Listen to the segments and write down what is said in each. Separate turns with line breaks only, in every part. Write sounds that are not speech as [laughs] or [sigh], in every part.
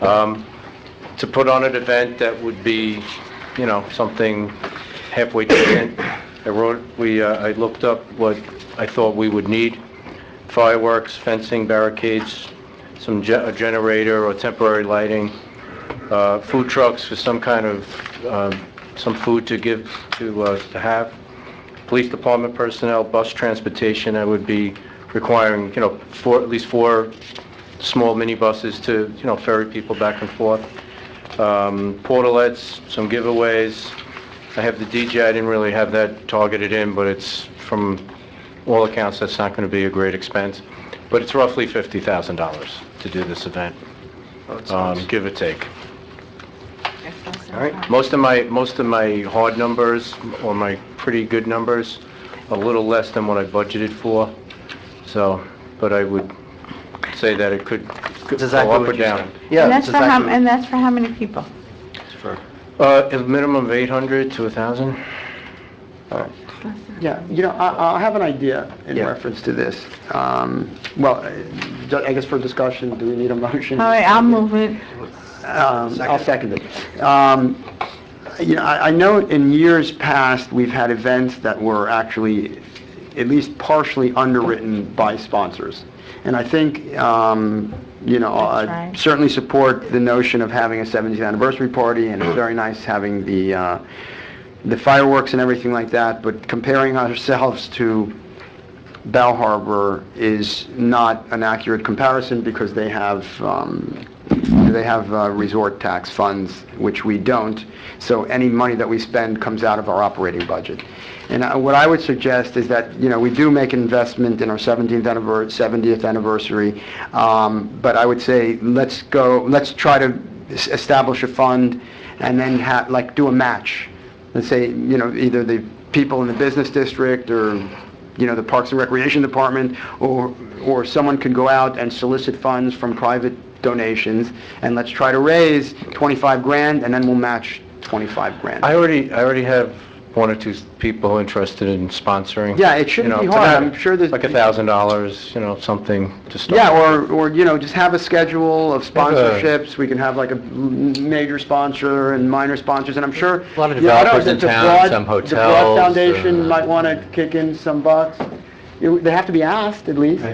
um, to put on an event that would be, you know, something halfway decent. I wrote, we, uh, I looked up what I thought we would need, fireworks, fencing, barricades, some ge- a generator or temporary lighting, uh, food trucks for some kind of, um, some food to give, to uh, to have, police department personnel, bus transportation, I would be requiring, you know, four, at least four small minibuses to, you know, ferry people back and forth. Um, Portalets, some giveaways. I have the DJ, I didn't really have that targeted in, but it's, from all accounts, that's not going to be a great expense. But it's roughly $50,000 to do this event, um, give or take.
All right.
Most of my, most of my hard numbers, or my pretty good numbers, a little less than what I budgeted for, so, but I would say that it could could go up or down.
And that's for how, and that's for how many people?
Uh, a minimum of 800 to 1,000?
Yeah, you know, I, I have an idea in reference to this. Um, well, uh, ju- I guess for discussion, do we need a motion?
All right, I'll move it.
Um, I'll second it. Um, you know, I, I know in years past, we've had events that were actually at least partially underwritten by sponsors. And I think, um, you know,
That's
I
right.
certainly support the notion of having a 70th anniversary party,
Mm.
and it's very nice having the, uh, the fireworks and everything like that, but comparing ourselves to Bell Harbor is not an accurate comparison because they have, um, they have uh, resort tax funds, which we don't. So any money that we spend comes out of our operating budget. And I- what I would suggest is that, you know, we do make an investment in our 17th anniversary, 70th anniversary, um, but I would say, let's go, let's try to es- establish a fund and then ha like, do a match let's say, you know, either the people in the business district or, you know, the Parks and Recreation Department, or, or someone could go out and solicit funds from private donations, and let's try to raise 25 grand, and then we'll match 25 grand.
I already, I already have one or two people interested in sponsoring.
Yeah, it shouldn't
You know,
be hard.
to have
I'm sure there's-
Like $1,000, you know, something to start.
Yeah, or, or, you know, just have a schedule of
Have a-
sponsorships, we can have like a m- major sponsor and minor sponsors, and I'm sure...
A lot of
Yeah, I don't-
developers in
the
town,
Broad-
some
The Broad
hotels, uh,
Foundation might want to kick in some bucks. You- They have to be asked, at least.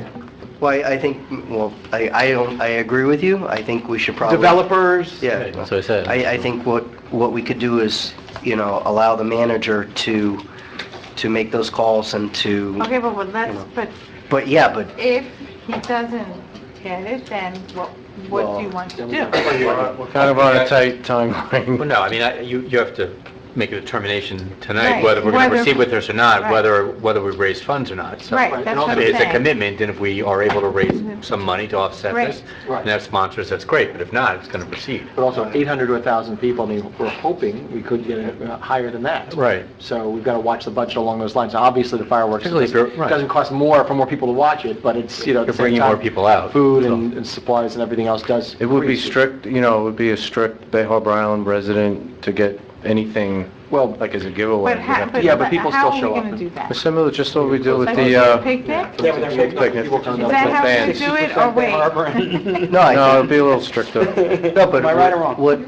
Well, I I think, well, I, I don't, I agree with you. I think we should probably...
Developers.
Yeah.
That's what I said.
I, I think what, what we could do is, you know, allow the manager to, to make those calls and to,
Okay, but well, let's, but
but yeah, but,
if he doesn't get it, then what, what do you want to do?
Kind of on a tight timeline.
Well, no, I mean, I- you, you have to make a determination
Right,
tonight whether we're going
whether-
to proceed with this or not,
Right.
whether, whether we raise funds or not. So-
Right, that's
And
what I'm
ultimately, It's
saying.
a commitment, and if we are able to raise some money to offset
Right.
this, and have sponsors, that's great, but if not, it's going to proceed.
But also 800 to 1,000 people, I mean, we're hoping we could get it uh, higher than that.
Right.
So we've got to watch the budget along those lines. Now, Obviously, the fireworks,
Particularly if you're-
doesn't
right.
doesn't cost more for more people to watch it, but it's, you know, at the
You're
same
bringing more
time,
people out,
Food
so.
and and supplies and everything else does.
It would be
increase.
strict, you know, it would be a strict Bay Harbor Island resident to get anything,
Well,
like as a giveaway.
But
We'd
how,
have to-
but
Yeah, but people
how
still
are
show
we
up
gonna
and-
do that?
Similar, just what we do with
Like
the,
a
uh,
picnic?
Yeah, but they're
Picnic.
picnic. People come
Is
down
that
[laughs]
how we
Fans.
do it, or wait? [laughs]
no,
no, I
it'd be a little stricter.
think... No, but
Am I right or wrong?
What,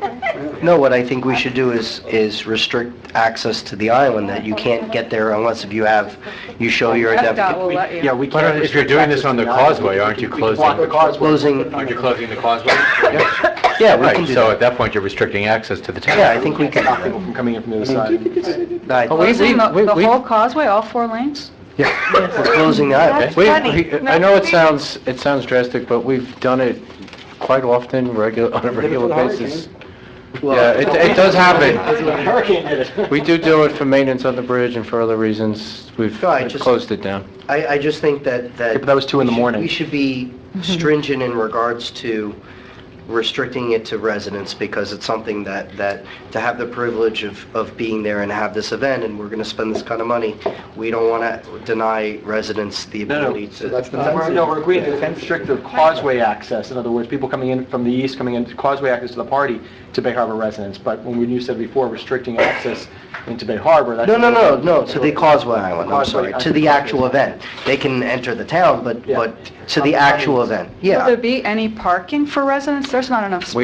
no, what I think we should do is, is restrict access to the island, that you can't get there unless if you have, you show your identification.
Yeah, we
Why
can't.
don't- if you're
restrict
doing
access
this on
to
the
island.
causeway,
We
aren't
can-
you
we can
closing-
block the causeway.
Closing,
Aren't you closing the causeway? Yeah.
yeah, we can
Right,
do
so at
that.
that point, you're restricting access to the town.
Yeah, I think we
Stop
can...
people from coming in from the
[laughs]
other side.
I-
Closing the
we-
the
we-
whole causeway, all four lanes? [laughs]
We're closing the island.
We,
Funny.
we-
No,
I know it
we-
sounds, it sounds drastic, but we've done it quite often, regular, on a regular basis. Yeah, it, it
[laughs]
does happen.
Hurricane hit it.
We do do it for maintenance on the bridge and for other reasons. We've
No, I just-
closed it down.
I, I just think that, that...
but that was two in the
we should-
morning.
We should be stringent in regards to restricting it to residents, because it's something that, that, to have the privilege of, of being there and have this event, and we're gonna spend this kind of money, we don't wanna deny residents the
No,
ability
no,
to...
that's the... No, we're agreeing to restrict the causeway access, in other words, people coming in from the east, coming in, causeway access to the party to Bay Harbor residents, but when we, you said before, restricting access into Bay Harbor, that's...
No, no, no, no, to the Causeway Island, I'm
Causeway,
sorry,
I
to
think
the
that's
actual
what it is.
event. They can enter the town, but,
Yeah.
but to the actual event, yeah.
Will there be any parking for residents? There's not enough space.